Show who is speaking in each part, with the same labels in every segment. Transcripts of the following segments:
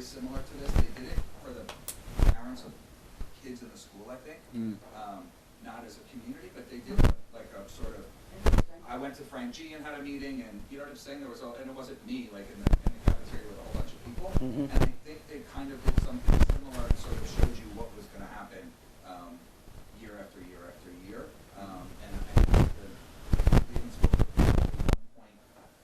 Speaker 1: similar to this. They did it for the parents of kids in the school, I think.
Speaker 2: Mm.
Speaker 1: Um, Not as a community, but they did like a sort of,
Speaker 3: Interesting.
Speaker 1: I went to Frank G and had a meeting and, you know what I'm saying? There was, all and it wasn't me, like in the, in the cafeteria with a whole bunch of people.
Speaker 2: Mhm.
Speaker 1: And I think they kind of did something similar and sort of showed you what was gonna happen, um, year after year after year. Um, and I think the students were at one point,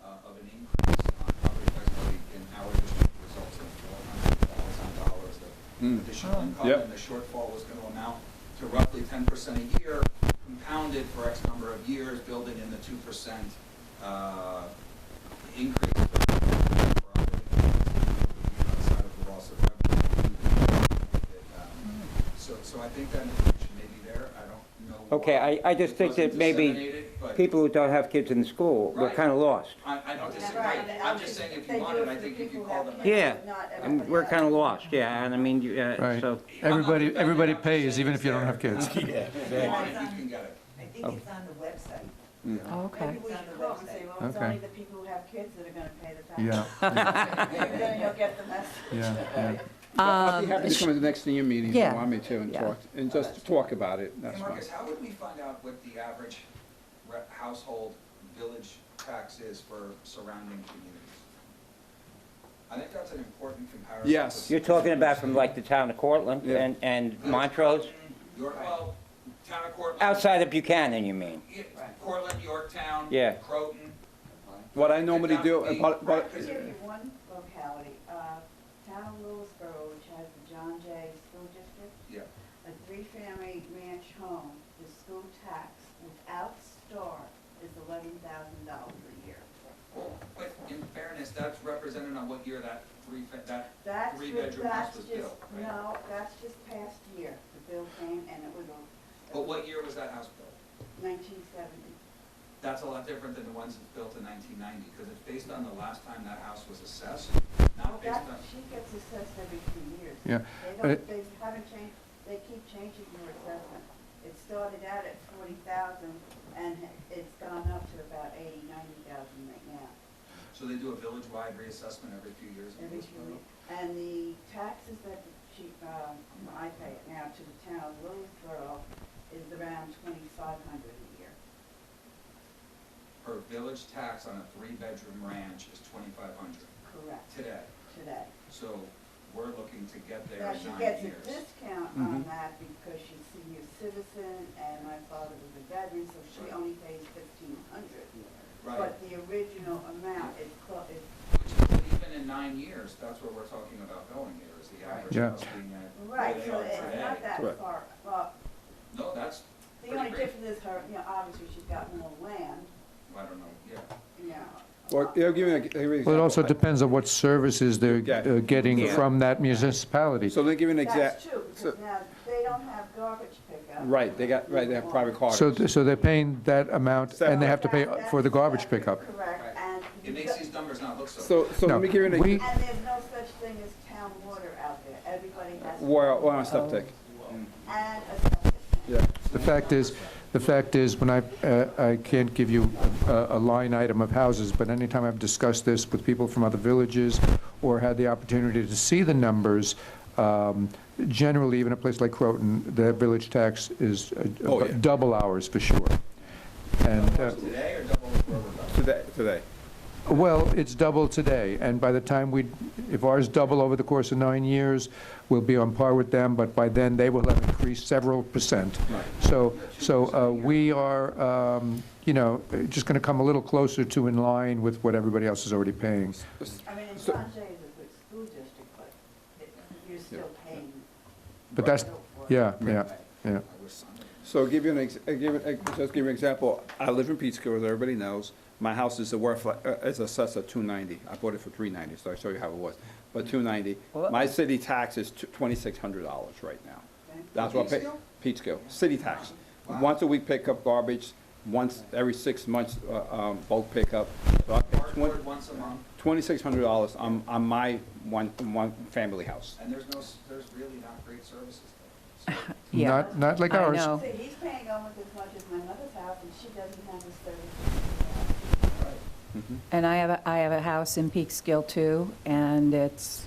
Speaker 1: uh, of an increase on property tax levy in our district results in four hundred thousand dollars of
Speaker 2: Mm.
Speaker 1: additional income.
Speaker 2: Yep.
Speaker 1: And the shortfall was gonna amount to roughly ten percent a year, compounded for X number of years, building in the two percent, uh, increase for for operating expenses outside of the loss of revenue. Um, So, so I think that information may be there, I don't know. why
Speaker 2: Okay, I, I just
Speaker 1: it
Speaker 2: think that
Speaker 1: wasn't
Speaker 2: maybe
Speaker 1: disseminated, but
Speaker 2: people who don't have kids in school were
Speaker 1: Right.
Speaker 2: kind of lost.
Speaker 1: I, I don't disagree,
Speaker 3: Right, and
Speaker 1: I'm just
Speaker 3: obviously
Speaker 1: saying if
Speaker 3: they
Speaker 1: you
Speaker 3: do
Speaker 1: wanted,
Speaker 3: it
Speaker 1: I
Speaker 3: for the
Speaker 1: think if
Speaker 3: people
Speaker 1: you
Speaker 3: who
Speaker 1: call
Speaker 3: have
Speaker 1: them.
Speaker 3: kids,
Speaker 2: Yeah.
Speaker 3: but not
Speaker 2: And
Speaker 3: everybody
Speaker 2: We're
Speaker 3: else.
Speaker 2: kind of lost, yeah, and I mean, you, uh,
Speaker 4: Right.
Speaker 2: so,
Speaker 4: Everybody, everybody pays, even if you don't have kids.
Speaker 1: Yeah. If you want it, you can get it.
Speaker 5: I think it's on the website.
Speaker 3: Maybe
Speaker 6: Okay.
Speaker 3: we should call and say, well, it's
Speaker 4: Okay.
Speaker 3: only the people who have kids that are gonna pay the
Speaker 4: Yeah,
Speaker 3: tax.
Speaker 4: yeah,
Speaker 3: Then you'll get the message.
Speaker 4: yeah.
Speaker 2: I'll be happy to come to the next thing you meeting if you
Speaker 6: Um, yeah,
Speaker 2: want me to and
Speaker 6: yeah.
Speaker 2: talk, and just talk about it,
Speaker 1: Hey,
Speaker 2: that's fine.
Speaker 1: Marcus, how would we find out what the average re- household village tax is for surrounding communities? I think that's an important comparison.
Speaker 2: Yes.
Speaker 1: to-
Speaker 2: You're
Speaker 6: talking about from like the town of Cortland
Speaker 2: Yeah.
Speaker 6: and, and Montrose?
Speaker 1: York, well, town of Cortland.
Speaker 6: Outside of Buchanan, you mean?
Speaker 1: Yeah, Cortland, Yorktown.
Speaker 6: Yeah.
Speaker 1: Croton.
Speaker 2: What I normally do,
Speaker 1: Right.
Speaker 2: but,
Speaker 3: I'll
Speaker 2: but,
Speaker 3: give you one locality, uh, town of Lewisboro, which has the John Jay School District,
Speaker 1: Yeah,
Speaker 3: a three-family ranch home, the school tax without star is eleven thousand dollars a year.
Speaker 1: well, but in fairness, that's represented on what year that three, fa- that
Speaker 3: That's,
Speaker 1: Three
Speaker 3: ju-
Speaker 1: bedroom house
Speaker 3: that's
Speaker 1: was
Speaker 3: just,
Speaker 1: built, right?
Speaker 3: no, that's just past year, the bill came and it was
Speaker 1: But what year was that house built?
Speaker 3: nineteen seventy.
Speaker 1: That's a lot different than the ones that's built in 1990, because it's based on the last time that house was assessed, not based on,
Speaker 3: That, she gets assessed every few years. They
Speaker 4: Yeah, but
Speaker 3: don't,
Speaker 4: it-
Speaker 3: they haven't changed, they keep changing your assessment. It started out at forty thousand and it's gone up to about eighty, ninety thousand right now.
Speaker 1: so they do a village-wide reassessment every few years. in
Speaker 3: Every
Speaker 1: this
Speaker 3: few
Speaker 1: borough?
Speaker 3: years. And the taxes that the chief, um, I pay it now to the town of Lewisboro is around twenty-five hundred a year.
Speaker 1: Her village tax on a three-bedroom ranch is 2,500
Speaker 3: Correct,
Speaker 1: today,
Speaker 3: today.
Speaker 1: so we're looking to get there
Speaker 3: Now,
Speaker 1: in
Speaker 3: she
Speaker 1: nine
Speaker 3: gets a
Speaker 1: years.
Speaker 3: discount on
Speaker 4: Mm-hmm.
Speaker 3: that because she's senior citizen and my father was a veteran, so she
Speaker 1: Right.
Speaker 3: only pays fifteen hundred.
Speaker 1: Right,
Speaker 3: But the original amount is, clo- is
Speaker 1: which is even in nine years, that's where we're talking about going here, is the average
Speaker 4: Yeah.
Speaker 1: house being at where
Speaker 3: Right,
Speaker 1: they
Speaker 3: so
Speaker 1: are
Speaker 3: it's
Speaker 1: today.
Speaker 3: not that
Speaker 2: Correct.
Speaker 3: far, well,
Speaker 1: No, that's
Speaker 3: the only
Speaker 1: pretty great.
Speaker 3: difference is her, you know, obviously she's got more land,
Speaker 1: I don't know, yeah.
Speaker 3: you know.
Speaker 2: or, yeah, give me a, give me an
Speaker 4: Well, it also
Speaker 2: example.
Speaker 4: depends on what services they're uh, getting
Speaker 2: Yeah.
Speaker 4: from that municipality.
Speaker 2: So let me give you an
Speaker 3: That's
Speaker 2: exact,
Speaker 3: true,
Speaker 2: so-
Speaker 3: because now they don't have garbage pickup.
Speaker 2: right, they got, right, they have private cars.
Speaker 4: So, th- so they're paying that amount, and they have to pay for the garbage pickup.
Speaker 3: Correct, and,
Speaker 1: It makes these numbers not look so.
Speaker 2: So, so
Speaker 4: No,
Speaker 2: let me give you an,
Speaker 4: we-
Speaker 2: ex-
Speaker 3: and there's no such thing as town water out there, everybody has.
Speaker 2: well, well, on septic,
Speaker 3: And a septic tank.
Speaker 2: yeah.
Speaker 4: The fact is, the fact is, when I, uh, I can't give you a a line item of houses, but anytime I've discussed this with people from other villages or had the opportunity to see the numbers, um, generally, even a place like Croton, the village tax is uh,
Speaker 2: Oh, yeah.
Speaker 4: double ours for sure. And, uh,
Speaker 1: Today or double where we're
Speaker 6: Oh.
Speaker 1: going?
Speaker 2: Today, today.
Speaker 4: well, it's double today, and by the time we, if ours double over the course of nine years, we'll be on par with them, but by then, they will have increased several percent. So, so uh, we are, um, you know, just going to come a little closer to in line with what everybody else is already paying.
Speaker 3: I mean, and
Speaker 2: So-
Speaker 3: John Jay is a good school district, but it- you're still paying.
Speaker 4: But that's, yeah, yeah, yeah.
Speaker 1: I wish somebody.
Speaker 2: So give you an, ex- uh, give, an- uh, just give you an example, I live in Peekskill, as everybody knows, my house is worth, like, uh, it's assessed at two ninety, I bought it for three ninety, so I show you how it was, but two ninety,
Speaker 6: Well,
Speaker 2: my city tax is twenty-six hundred dollars right now.
Speaker 3: Okay.
Speaker 2: That's what I pay,
Speaker 1: Peekskill?
Speaker 2: Peekskill, city tax, once a week pickup garbage, once every six months, uh, um, bulk pickup, so I pay
Speaker 1: Cardboard once a month,
Speaker 2: twenty-six hundred dollars on, on my one, one family house.
Speaker 1: and there's no, s- there's really not great services there. So,
Speaker 6: Yeah.
Speaker 4: Not, not like
Speaker 6: I
Speaker 4: ours.
Speaker 3: See,
Speaker 6: know.
Speaker 3: he's paying almost as much as my mother's house, and she doesn't have a service.
Speaker 1: all right.
Speaker 2: Mm-hmm.
Speaker 6: And I have, a I have a house in Peekskill too, and it's